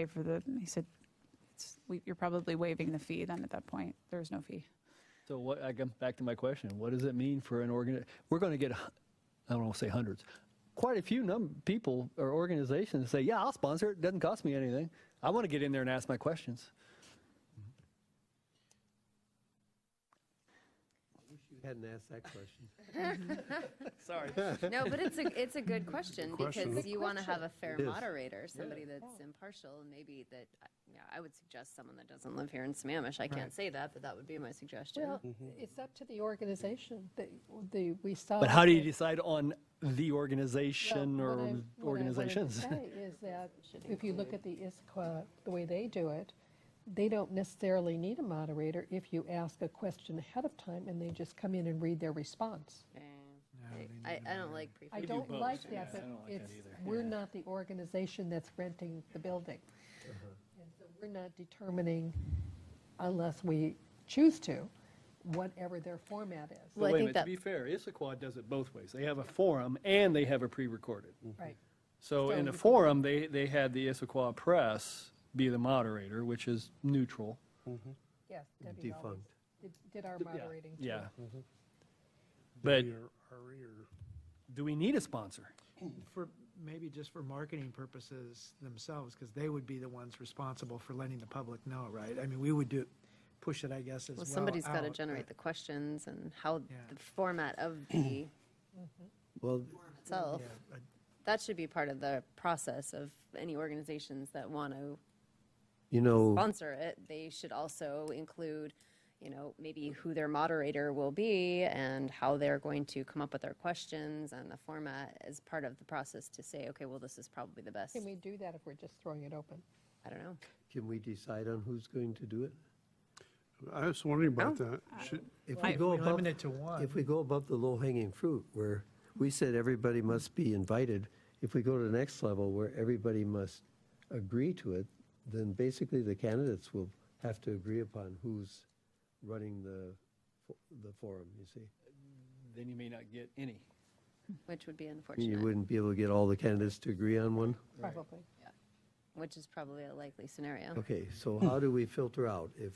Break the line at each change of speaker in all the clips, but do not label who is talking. pay for the, he said, it's, we- you're probably waiving the fee then at that point. There's no fee.
So what, I come back to my question, what does it mean for an organ, we're going to get, a hu- I don't want to say hundreds, quite a few num, people or organizations that say, yeah, I'll sponsor it, doesn't cost me anything. I want to get in there and ask my questions.
Wish you hadn't asked that question.
Sorry.
No, but it's a, it's a good question
question.
because you want to have a fair
It is.
moderator, somebody that's impartial and maybe that, yeah, I would suggest someone that doesn't live here in Sammamish. I can't say that, but that would be my suggestion.
Well, it's up to the organization, the, the, we saw.
But how do you decide on the organization or
Well, what I- what I wanted to
organizations?
say Is that if you look at the ISQA, the way they do it, they don't necessarily need a moderator if you ask a question ahead of time and they just come in and read their response.
Eh, I, I don't like pre.
I don't like that, but it's, we're not the organization that's renting the building. And so we're not determining, unless we choose to, whatever their format is.
Wait a
Well, I think
minute, to
that-
be fair, Issaquah does it both ways. They have a forum and they have a pre-recorded.
Right.
So in
So
the
you-
forum, they, they had the Issaquah Press be the moderator, which is neutral.
Yes, Debbie always
Defunct.
did- did our
Yeah,
moderating. too.
Yeah. But
Your- our ear.
do we need a sponsor?
For, maybe just for marketing purposes themselves, because they would be the ones responsible for letting the public know, right? I mean, we would do, push it, I guess, as well.
Well, somebody's got to
out, uh,
generate the questions and how
Yeah.
the format of the
Well,
itself.
uh,
That should be part of the process of any organizations that want to
you know,
sponsor it, they should also include, you know, maybe who their moderator will be and how they're going to come up with their questions and the format as part of the process to say, okay, well, this is probably the best.
Can we do that if we're just throwing it open?
I don't know.
can we decide on who's going to do it?
I was wondering about that. Should,
If
but
we
If
go
we
above,
limit it uh, to one,
if we go above the low-hanging fruit, where we said everybody must be invited, if we go to the next level where everybody must agree to it, then basically the candidates will have to agree upon who's running the, fo- the forum, you see?
Then you may not get any.
Which would be
You
unfortunate,
wouldn't be able to get all the candidates to agree on one?
Probably.
which is probably a likely scenario.
Okay, so how do we filter out if,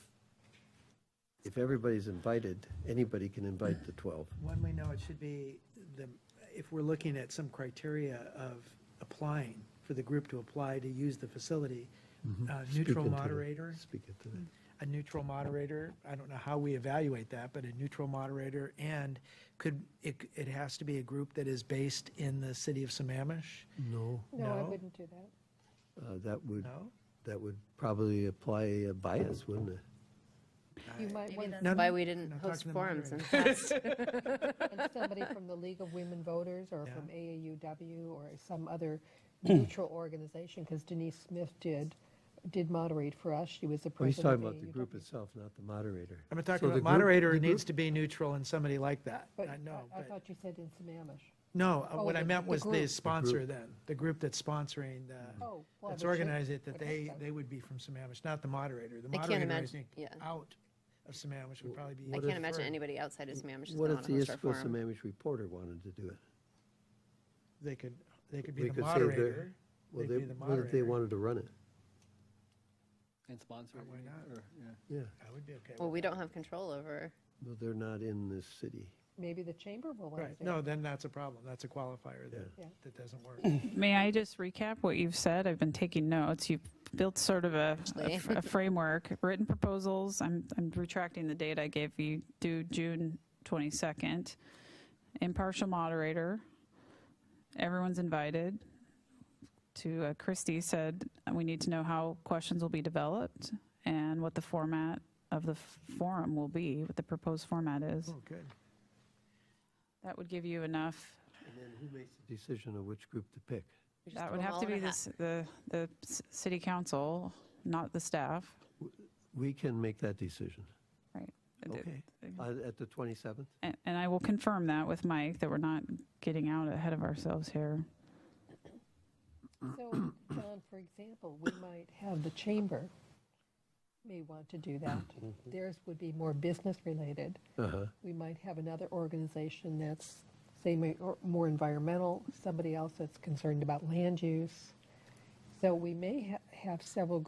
if everybody's invited, anybody can invite the 12?
one we know it should be the, if we're looking at some criteria of applying, for the group to apply to use the facility,
Mm-hmm.
a neutral moderator,
Speak into that.
a neutral moderator, I don't know how we evaluate that, but a neutral moderator, and could, it, it has to be a group that is based in the city of Sammamish?
No.
No, I
No.
wouldn't do that.
Uh, That would,
No?
that would probably apply a bias, wouldn't it?
You might
Maybe
want
that's
No,
why
no,
we didn't
no, talk
host
to the
forums in the
moderator.
past.
and somebody from the League of Women Voters or
Yeah.
from AAUW or some other neutral organization, because Denise Smith did, did moderate for us. She was the
Well, He's
president of
talking about the group
AAUW.
itself, not the moderator.
I'm
So
talking
the
about
group-
moderator
the
needs
group-
to be neutral and somebody like that.
But
I know,
I
but,
thought you said in Sammamish.
no,
oh,
uh, what I
the-
meant
the
was
group. The
the sponsor then, the group that's sponsoring
Mm.
the,
Oh, well,
that's
they should-
organized it, that
would hope
they,
so.
they would be from Sammamish, not the moderator. The
I can't
moderator is
imagine- yeah.
out of Sammamish would probably be.
I can't imagine
preferred.
anybody outside of Sammamish is
What
going
if
to
the
host our
Issaquah
forum.
Sammamish reporter wanted to do it?
They could, they could
We
be the
could say they're-
moderator.
Well,
They'd
they,
be the
what if they
moderator.
wanted to run it?
And sponsor.
Why not?
Yeah,
I would be okay with
Well, we don't have control over,
well, they're not in this city.
Maybe the chamber will want to
Right,
do it.
no, then that's a problem. That's a qualifier
Yeah.
that, that doesn't work.
May I just recap what you've said? I've been taking notes. You've built sort of a, a
Actually.
f- a framework, written proposals. I'm, I'm retracting the date I gave you due June 22nd. Impartial moderator. Everyone's invited. To uh, Christie said, we need to know how questions will be developed and what the format of the f- forum will be, what the proposed format is.
Oh, good.
That would give you enough
And then who makes the decision of which group to pick?
we just
That
put
would
them
have
all
to
in a
be the,
hat.
s- the, the s- city council, not the staff,
We can make that decision,
right? The-
okay?
the-
Uh, At the 27th?
And, and I will confirm that with Mike, that we're not getting out ahead of ourselves here.
So, John, for example, we might have the chamber may want to do that. Theirs would be more business-related.
Uh-huh.
We might have another organization that's, say, ma- or more environmental, somebody else that's concerned about land use. So we may ha- have several